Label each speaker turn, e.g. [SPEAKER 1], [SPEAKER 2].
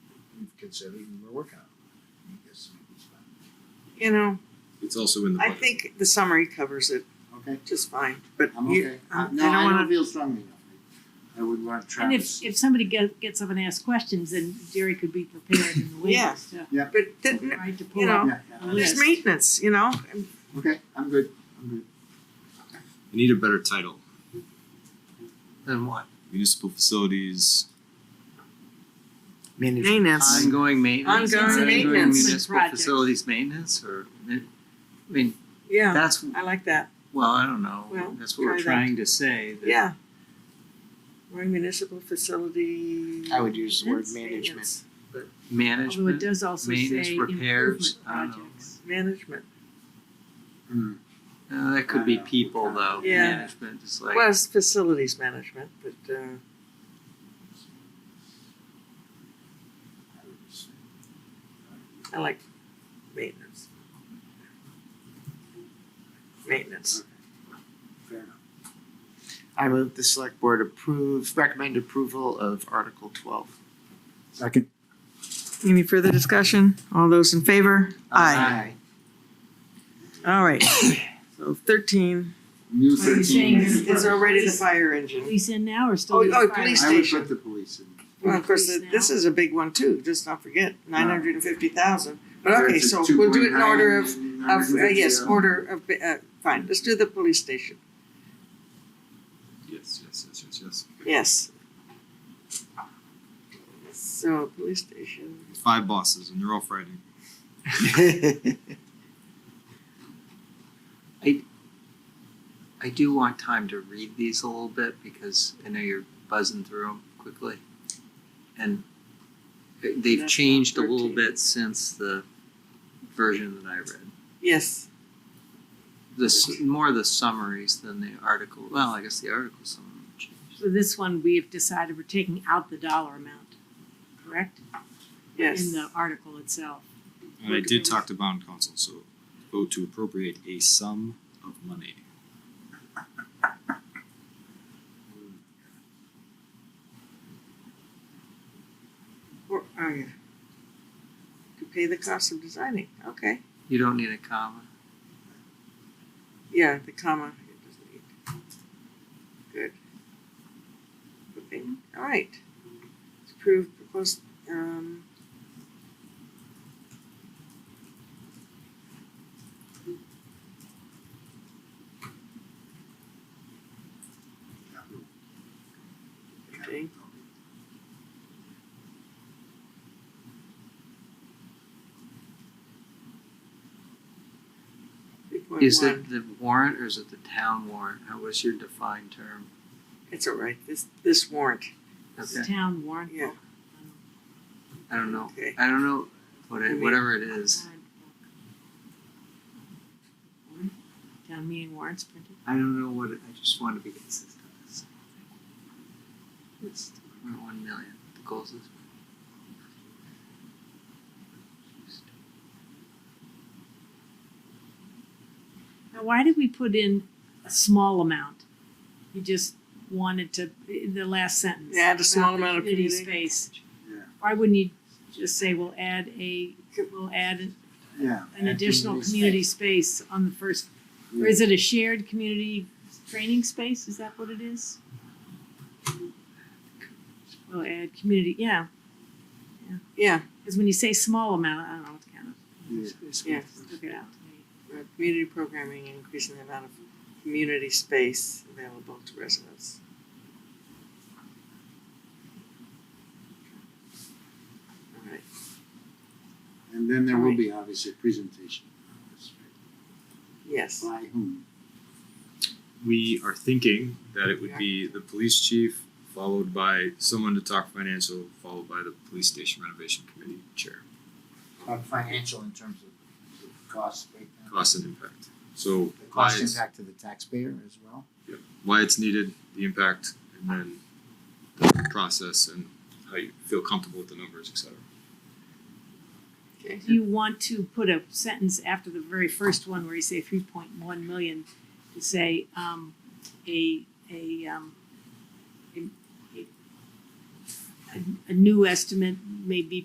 [SPEAKER 1] considered and we're working on it. I guess it's fine.
[SPEAKER 2] You know,
[SPEAKER 3] It's also in the
[SPEAKER 2] I
[SPEAKER 3] budget.
[SPEAKER 2] think the summary covers it
[SPEAKER 1] Okay,
[SPEAKER 2] just fine, but
[SPEAKER 1] I'm
[SPEAKER 2] you,
[SPEAKER 1] okay.
[SPEAKER 2] I-
[SPEAKER 1] I-
[SPEAKER 2] I
[SPEAKER 1] No,
[SPEAKER 2] don't
[SPEAKER 1] I
[SPEAKER 2] wanna-
[SPEAKER 1] don't feel strongly enough. I would want
[SPEAKER 4] And
[SPEAKER 1] Travis.
[SPEAKER 4] if, if somebody get, gets up and asks questions, then Jerry could be prepared in the
[SPEAKER 2] Yes.
[SPEAKER 4] wings to,
[SPEAKER 2] but then,
[SPEAKER 4] right, to
[SPEAKER 2] You
[SPEAKER 4] pull
[SPEAKER 2] know,
[SPEAKER 4] up.
[SPEAKER 1] Yeah, yeah.
[SPEAKER 2] there's
[SPEAKER 4] Yes.
[SPEAKER 2] maintenance, you know? And
[SPEAKER 1] Okay, I'm good, I'm good.
[SPEAKER 3] I need a better title.
[SPEAKER 5] Then what?
[SPEAKER 3] Municipal facilities.
[SPEAKER 5] Maintenance.
[SPEAKER 2] Maintenance,
[SPEAKER 5] Ongoing maintenance.
[SPEAKER 2] Ongoing maintenance.
[SPEAKER 5] Municipal
[SPEAKER 4] Projects.
[SPEAKER 5] facilities maintenance or, I mean,
[SPEAKER 2] yeah,
[SPEAKER 5] that's,
[SPEAKER 2] I like that,
[SPEAKER 5] well, I don't
[SPEAKER 2] Well,
[SPEAKER 5] know, that's what we're
[SPEAKER 2] try that.
[SPEAKER 5] trying to say. that-
[SPEAKER 2] yeah. Or municipal facility.
[SPEAKER 6] I would use the word
[SPEAKER 2] That's
[SPEAKER 6] management.
[SPEAKER 2] maintenance.
[SPEAKER 4] Although it
[SPEAKER 5] Management,
[SPEAKER 4] does also say
[SPEAKER 5] maintenance, repairs,
[SPEAKER 4] improvement
[SPEAKER 5] I don't know.
[SPEAKER 4] projects.
[SPEAKER 2] Management,
[SPEAKER 1] Hmm.
[SPEAKER 5] Uh, that could be people though,
[SPEAKER 2] Yeah.
[SPEAKER 5] management, just like.
[SPEAKER 2] well, it's facilities management, but, uh,
[SPEAKER 1] I would just say-
[SPEAKER 2] I like maintenance. Maintenance,
[SPEAKER 1] Fair enough.
[SPEAKER 6] I move the select board approve, recommend approval of Article twelve.
[SPEAKER 1] Second.
[SPEAKER 2] any further discussion? All those in favor?
[SPEAKER 5] Aye.
[SPEAKER 2] All right, so thirteen.
[SPEAKER 1] New
[SPEAKER 4] Are you saying
[SPEAKER 1] thirteen.
[SPEAKER 4] there's-
[SPEAKER 2] It's already the fire
[SPEAKER 5] um,
[SPEAKER 2] engine.
[SPEAKER 4] Police in now or still?
[SPEAKER 2] Oh,
[SPEAKER 4] do the
[SPEAKER 2] oh,
[SPEAKER 4] fire?
[SPEAKER 2] police
[SPEAKER 1] I would
[SPEAKER 2] station.
[SPEAKER 1] put the police in.
[SPEAKER 2] Well, of course,
[SPEAKER 4] Police
[SPEAKER 2] this
[SPEAKER 4] now.
[SPEAKER 2] is a big one too, just not forget, nine hundred and fifty thousand. But okay,
[SPEAKER 1] It's a
[SPEAKER 2] so we'll do it in order of,
[SPEAKER 1] 2.9,
[SPEAKER 2] of, uh, yes,
[SPEAKER 1] 950.
[SPEAKER 2] order of, uh, fine, let's do the police station,
[SPEAKER 3] Yes, yes, yes, yes, yes.
[SPEAKER 2] yes. So, police station,
[SPEAKER 3] Five bosses and they're all Friday.
[SPEAKER 6] Aye.
[SPEAKER 5] I do want time to read these a little bit because I know you're buzzing through them quickly. And they've
[SPEAKER 2] That's
[SPEAKER 5] changed a little
[SPEAKER 2] 13.
[SPEAKER 5] bit since the version that I read.
[SPEAKER 2] yes,
[SPEAKER 5] This, more the summaries than the article, well, I guess the article summary changed.
[SPEAKER 4] So this one, we have decided we're taking out the dollar amount, correct?
[SPEAKER 2] yes.
[SPEAKER 4] In the article itself.
[SPEAKER 3] And I did talk to bond council, so vote to appropriate a sum of money.
[SPEAKER 2] Or, oh yeah. To pay the cost of designing, okay,
[SPEAKER 5] You don't need a comma.
[SPEAKER 2] yeah, the comma, it doesn't need. Good. Okay, alright. Approved proposed, um. Okay.
[SPEAKER 5] Is
[SPEAKER 2] 3.1.
[SPEAKER 5] it the warrant or is it the town warrant? How was your defined term?
[SPEAKER 2] It's all right, this, this warrant,
[SPEAKER 4] It's
[SPEAKER 5] Okay,
[SPEAKER 4] Town warrant.
[SPEAKER 2] Yeah.
[SPEAKER 5] I don't know.
[SPEAKER 2] okay.
[SPEAKER 5] I don't know what it, whatever it is.
[SPEAKER 4] Town meeting warrants printed.
[SPEAKER 5] I don't know what it, I just want to be consistent. It's three point one million. The goals is.
[SPEAKER 4] Now, why did we put in a small amount? You just wanted to, the last sentence.
[SPEAKER 2] Add a small
[SPEAKER 4] about the
[SPEAKER 2] amount of
[SPEAKER 4] community
[SPEAKER 2] community.
[SPEAKER 4] space.
[SPEAKER 1] Yeah.
[SPEAKER 4] Why wouldn't you just say, we'll add a, we'll add an-
[SPEAKER 1] Yeah.
[SPEAKER 4] an additional community space on the first, or
[SPEAKER 1] Yeah.
[SPEAKER 4] is it a shared community training space? Is that what it is? We'll add community, yeah,
[SPEAKER 2] Yeah,
[SPEAKER 4] because when you say small amount, I don't know what to count.
[SPEAKER 1] Yeah.
[SPEAKER 2] yeah,
[SPEAKER 4] Look it out.
[SPEAKER 2] Uh, community programming, increasing the amount of community space available to residents. All right,
[SPEAKER 1] And then there will be obviously a presentation. on this,
[SPEAKER 2] yes,
[SPEAKER 1] right? By whom?
[SPEAKER 3] We are thinking that it would be the police chief, followed by someone to talk financial, followed by the police station renovation committee chair.
[SPEAKER 6] Uh, Financial in terms of the cost breakdown.
[SPEAKER 3] Cost and impact. So
[SPEAKER 6] The
[SPEAKER 3] why
[SPEAKER 6] cost
[SPEAKER 3] it's,
[SPEAKER 6] impact to the taxpayer as well.
[SPEAKER 3] why it's needed, the impact, and then the process and how you feel comfortable with the numbers, et cetera.
[SPEAKER 2] okay,
[SPEAKER 4] Do you want to put a sentence after the very first one where you say three point one million to say, um, a, a, um, a, a- a new estimate may be